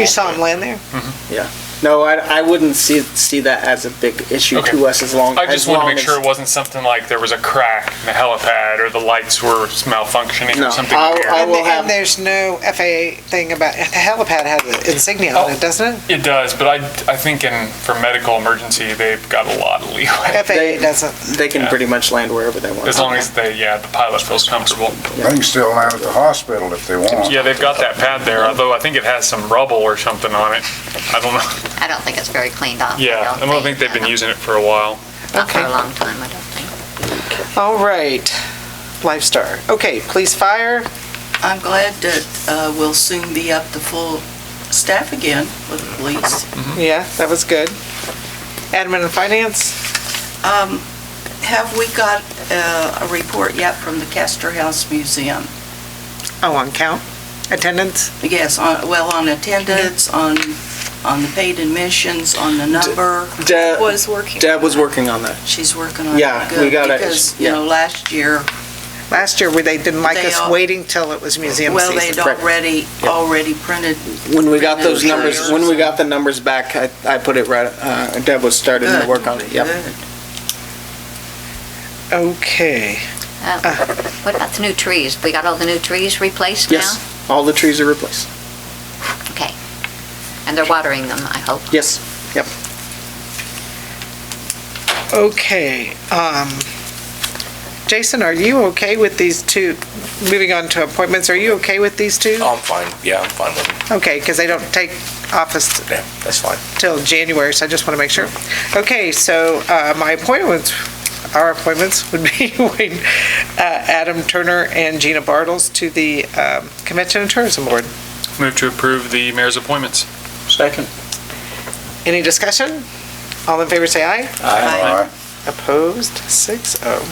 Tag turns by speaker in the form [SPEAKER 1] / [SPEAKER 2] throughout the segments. [SPEAKER 1] You saw him land there?
[SPEAKER 2] No, I, I wouldn't see, see that as a big issue
[SPEAKER 3] Okay.
[SPEAKER 2] to us as long,
[SPEAKER 3] I just
[SPEAKER 2] as
[SPEAKER 3] wanted
[SPEAKER 2] long
[SPEAKER 3] to make
[SPEAKER 2] as.
[SPEAKER 3] sure it wasn't something like there was a crack in the helipad or the lights were malfunctioning
[SPEAKER 2] No,
[SPEAKER 3] or something
[SPEAKER 2] I'll-
[SPEAKER 3] weird.
[SPEAKER 2] I'll-
[SPEAKER 1] And, the-
[SPEAKER 2] will have-
[SPEAKER 1] and there's no FAA thing about, the helipad has an insignia on it, doesn't it?
[SPEAKER 3] It does, but I, I think in for medical emergency they've got a lot of leeway
[SPEAKER 1] FAA
[SPEAKER 2] They-
[SPEAKER 1] doesn't.
[SPEAKER 2] They can
[SPEAKER 3] Yeah.
[SPEAKER 2] pretty much land wherever they want.
[SPEAKER 3] as long as they yeah the pilot feels comfortable.
[SPEAKER 4] They can still land at the hospital if they want.
[SPEAKER 3] Yeah, they've got that pad there, although I think it has some rubble or something on it. I don't know.
[SPEAKER 5] I don't think it's very cleaned up.
[SPEAKER 3] Yeah, I don't think they've been using it for a while.
[SPEAKER 5] Uh, Not for
[SPEAKER 1] Okay.
[SPEAKER 5] a long time, I don't think.
[SPEAKER 1] All right, Lifestar. Okay, police fire.
[SPEAKER 6] I'm glad that uh, we'll soon be up to full staff again with the police.
[SPEAKER 1] Yeah, that was good. Admin and finance.
[SPEAKER 6] Um, Have we got uh, a report yet from the Castor House Museum?
[SPEAKER 1] Oh, on count. Attendance.
[SPEAKER 6] Yes, on- well, on attendance, on, on the paid admissions, on the number.
[SPEAKER 2] Deb
[SPEAKER 7] was working.
[SPEAKER 2] uh, Deb was working on that.
[SPEAKER 6] She's working on it.
[SPEAKER 2] Yeah, we
[SPEAKER 6] Good,
[SPEAKER 2] gotta-
[SPEAKER 6] Because, you know, last year,
[SPEAKER 1] Last year, where they didn't like
[SPEAKER 6] They
[SPEAKER 1] us
[SPEAKER 6] all-
[SPEAKER 1] waiting till it was museum
[SPEAKER 6] well, they'd
[SPEAKER 1] season.
[SPEAKER 2] correct.
[SPEAKER 6] already, already printed,
[SPEAKER 2] When we got those
[SPEAKER 6] Sure.
[SPEAKER 2] numbers, when we got the numbers back, I, I put it right, uh, Deb was starting to
[SPEAKER 6] good.
[SPEAKER 2] work on it, yep.
[SPEAKER 6] good.
[SPEAKER 1] Okay.
[SPEAKER 5] Uh, What about the new trees? We got all the new trees replaced now?
[SPEAKER 2] Yes, all the trees are replaced.
[SPEAKER 5] Okay. And they're watering them, I hope.
[SPEAKER 2] Yes,
[SPEAKER 1] Okay, um, Jason, are you okay with these two, moving on to appointments, are you okay with these two?
[SPEAKER 8] I'm fine, yeah, I'm fine with it,
[SPEAKER 1] Okay, because they don't take office
[SPEAKER 8] yeah, that's fine.
[SPEAKER 1] till January, so I just want to make sure. Okay, so, uh, my appointments, our appointments would be Wayne, uh, Adam Turner and Gina Bartles to the, um, Convention and Tourism Board.
[SPEAKER 3] Move to approve the mayor's appointments.
[SPEAKER 2] second.
[SPEAKER 1] Any discussion? All in favor, say aye.
[SPEAKER 6] Aye.
[SPEAKER 4] Aye.
[SPEAKER 1] Opposed, six oh.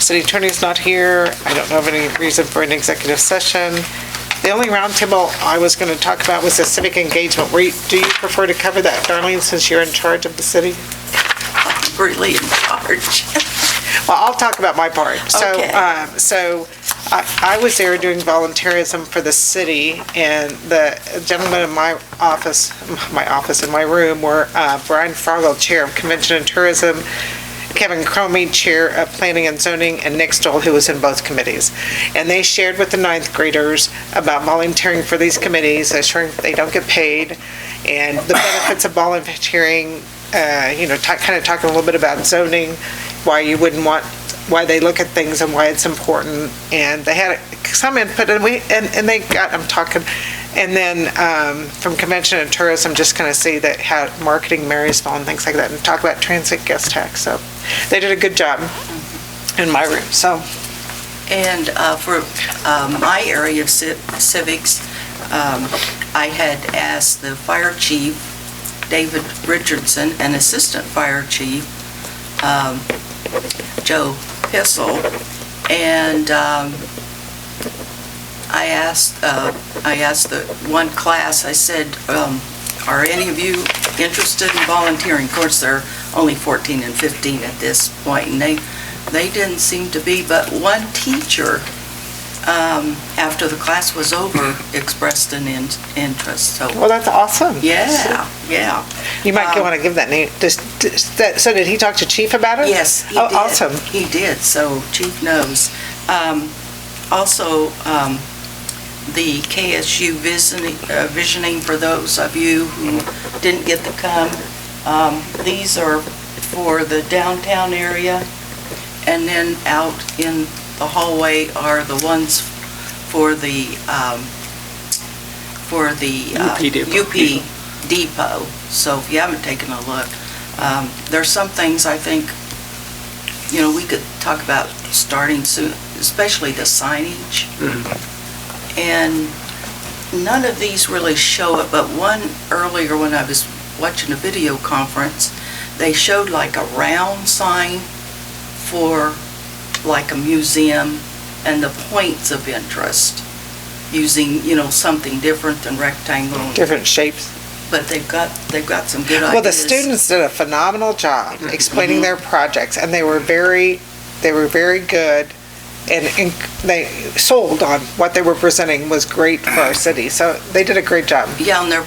[SPEAKER 1] City attorney's not here. I don't know of any reason for an executive session. The only roundtable I was going to talk about was the civic engagement. Were you- Do you prefer to cover that, Darlene, since you're in charge of the city?
[SPEAKER 6] Really in charge.
[SPEAKER 1] Well, I'll talk about my part. So,
[SPEAKER 6] Okay.
[SPEAKER 1] um, so I, I was there doing volunteerism for the city, and the gentlemen in my office, my office in my room were uh, Brian Frogel, Chair of Convention and Tourism, Kevin Cromie, Chair of Planning and Zoning, and Nick Stoll, who was in both committees. And they shared with the ninth graders about volunteering for these committees, assuring they don't get paid, and the benefits of volunteering, uh, you know, kind of talking a little bit about zoning, why you wouldn't want, why they look at things and why it's important. And they had some input and we, and, and they got, I'm talking, and then um, from convention and tourism, just kind of see that how marketing Marysville and things like that and talk about transit guest tax. So they did a good job in my room, so.
[SPEAKER 6] And uh, for um, my area of ci- civics, um, I had asked the fire chief, David Richardson, and Assistant Fire Chief, um, Joe Pissel, and um, I asked, uh, I asked the one class, I said, um, "Are any of you interested in volunteering?" Of course, they're only 14 and 15 at this point, and they they didn't seem to be, but one teacher, um, after the class was over, expressed an in- interest, so,
[SPEAKER 1] Well, that's awesome.
[SPEAKER 6] yeah, yeah.
[SPEAKER 1] You might
[SPEAKER 6] Um,
[SPEAKER 1] want to give that name. Does, does that- so did he talk to chief about it?
[SPEAKER 6] Yes, he did.
[SPEAKER 1] Oh, awesome.
[SPEAKER 6] He did, so chief knows. Um, Also, um, the KSU visioning, uh, visioning, for those of you who didn't get to come, um, these are for the downtown area, and then out in the hallway are the ones for the, um, for the... uh,
[SPEAKER 2] UP Depot.
[SPEAKER 6] UP Depot, so if you haven't taken a look, um, there's some things I think, you know, we could talk about starting soon, especially the signage. And none of these really show it, but one earlier when I was watching a video conference, they showed like a round sign for like a museum and the points of interest, using, you know, something different than rectangle
[SPEAKER 1] Different shapes.
[SPEAKER 6] but they've got, they've got some good ideas. Mm-hmm.
[SPEAKER 1] Well, the students did a phenomenal job explaining their projects, and they were very, they were very good, and and they sold on what they were presenting was great for our city, so they did a great job.
[SPEAKER 6] Yeah, and their